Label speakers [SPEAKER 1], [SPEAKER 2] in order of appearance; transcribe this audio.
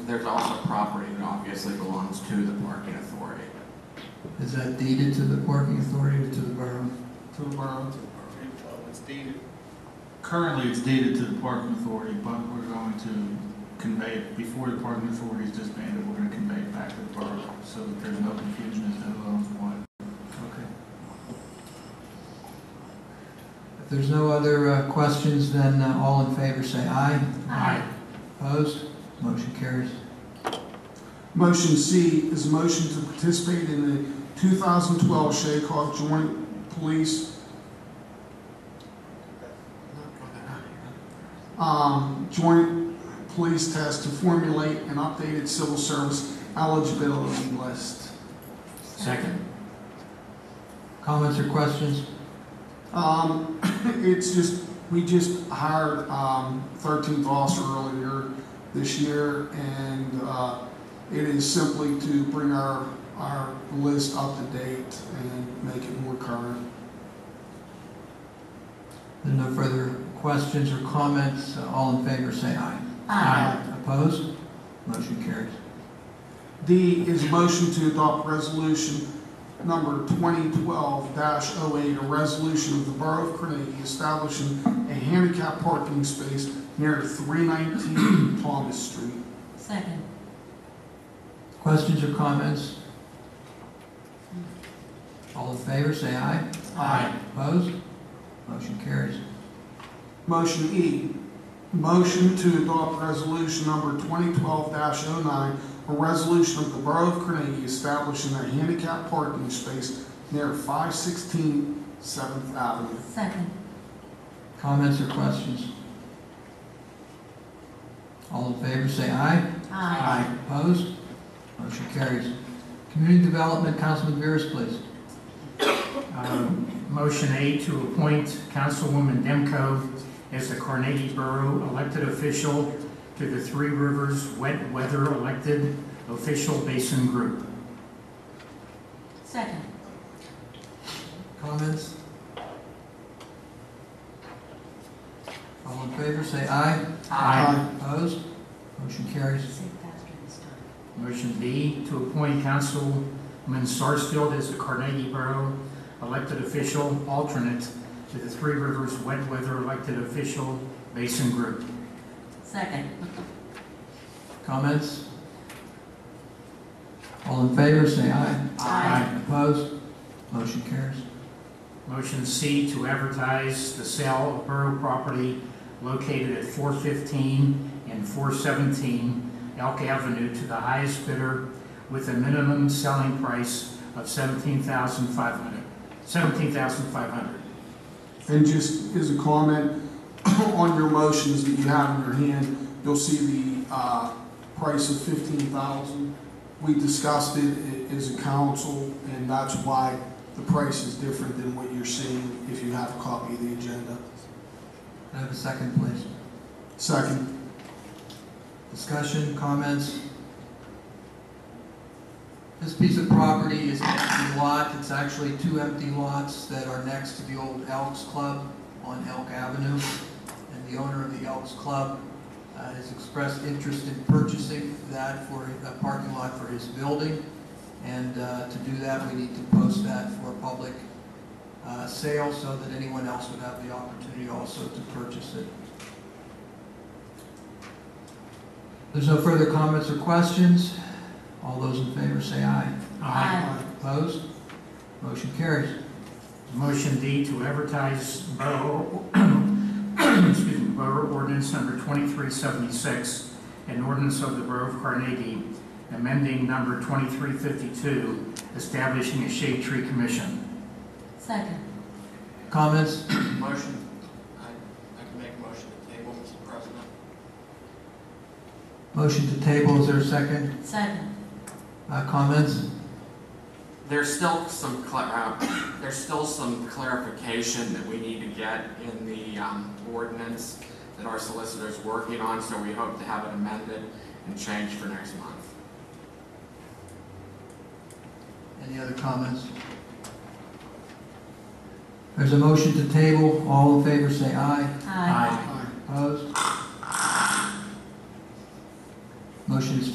[SPEAKER 1] there's also property that obviously belongs to the parking authority.
[SPEAKER 2] Is that deeded to the parking authority or to the borough?
[SPEAKER 3] To the borough, to the borough. It's dated. Currently, it's dated to the parking authority, but we're going to convey it before the parking authority is disbanded. We're going to convey it back to the borough so that there's no confusion as to who owns what.
[SPEAKER 2] Okay. If there's no other uh, questions, then uh, all in favor say aye.
[SPEAKER 4] Aye.
[SPEAKER 2] Opposed? Motion carries.
[SPEAKER 5] Motion C is a motion to participate in the 2012 Shakoff Joint Police um, Joint Police Test to formulate an updated civil service eligibility list.
[SPEAKER 1] Second,
[SPEAKER 2] Comments or questions?
[SPEAKER 5] Um, it's just, we just hired, um, thirteenth officer earlier this year, and, uh, it is simply to bring our, our list up to date and make it more current.
[SPEAKER 2] Then no further questions or comments. Uh, All in favor say aye.
[SPEAKER 4] Aye.
[SPEAKER 5] Uh,
[SPEAKER 2] Opposed? Motion carries.
[SPEAKER 5] D is a motion to adopt resolution number twenty twelve 8 a resolution of the Borough of Carnegie establishing a handicap parking space near three nineteen Thomas Street.
[SPEAKER 4] Second.
[SPEAKER 2] Questions or comments? All in favor say aye.
[SPEAKER 5] Aye.
[SPEAKER 2] Opposed? Motion carries.
[SPEAKER 5] Motion E, motion to adopt resolution number 2012-09, a resolution of the Borough of Carnegie establishing a handicap parking space near 516 7th Avenue.
[SPEAKER 4] Second.
[SPEAKER 2] Comments or questions? All in favor say aye.
[SPEAKER 4] Aye.
[SPEAKER 2] Opposed? Motion carries. Community Development, Councilman Veras, please.
[SPEAKER 6] Um, Motion A to appoint Councilwoman Demko as the Carnegie Borough elected official to the Three Rivers Wet Weather Elected Official Basin Group.
[SPEAKER 4] Second.
[SPEAKER 2] Comments? All in favor say aye. Opposed? Motion carries.
[SPEAKER 4] Say it faster this time.
[SPEAKER 6] Motion B to appoint Councilman Sarsfield as the Carnegie Borough elected official alternate to the Three Rivers Wet Weather Elected Official Basin Group.
[SPEAKER 4] Second.
[SPEAKER 2] Comments? All in favor say aye.
[SPEAKER 4] Aye.
[SPEAKER 2] Opposed? Motion carries.
[SPEAKER 6] Motion C to advertise the sale of borough property located at 415 and 417 Elk Avenue to the highest bidder with a minimum selling price of 17500 $17,500.
[SPEAKER 5] And just as a comment, on your motions that you have in your hand, you'll see the uh, price of 15,000. We discussed it i- as a council, and that's why the price is different than what you're seeing if you have a copy of the agenda.
[SPEAKER 2] Can I have a second, please?
[SPEAKER 5] Second.
[SPEAKER 2] Discussion, comments? This piece of property is an empty lot, it's actually two empty lots that are next to the old Elks Club on Elk Avenue. And the owner of the Elks Club uh, has expressed interest in purchasing that for a parking lot for his building. And uh, to do that, we need to post that for public uh, sale so that anyone else would have the opportunity also to purchase it. There's no further comments or questions. All those in favor say aye.
[SPEAKER 4] Aye.
[SPEAKER 2] Opposed? Motion carries.
[SPEAKER 6] Motion D to advertise borough, excuse me, borough ordinance number 2376, an ordinance of the Borough of Carnegie, amending number 2352, establishing a shade tree commission.
[SPEAKER 4] Second.
[SPEAKER 2] Comments?
[SPEAKER 7] Motion, I, I can make a motion to table, Mr. President.
[SPEAKER 2] Motion to table, is there a second?
[SPEAKER 4] Second.
[SPEAKER 2] Uh, Comments?
[SPEAKER 1] there's still some, cla- uh, there's still some clarification that we need to get in the um, ordinance that our solicitor's working on, so we hope to have it amended and changed for next month.
[SPEAKER 2] Any other comments? There's a motion to table. All in favor say aye.
[SPEAKER 4] Aye.
[SPEAKER 2] Opposed? Motion is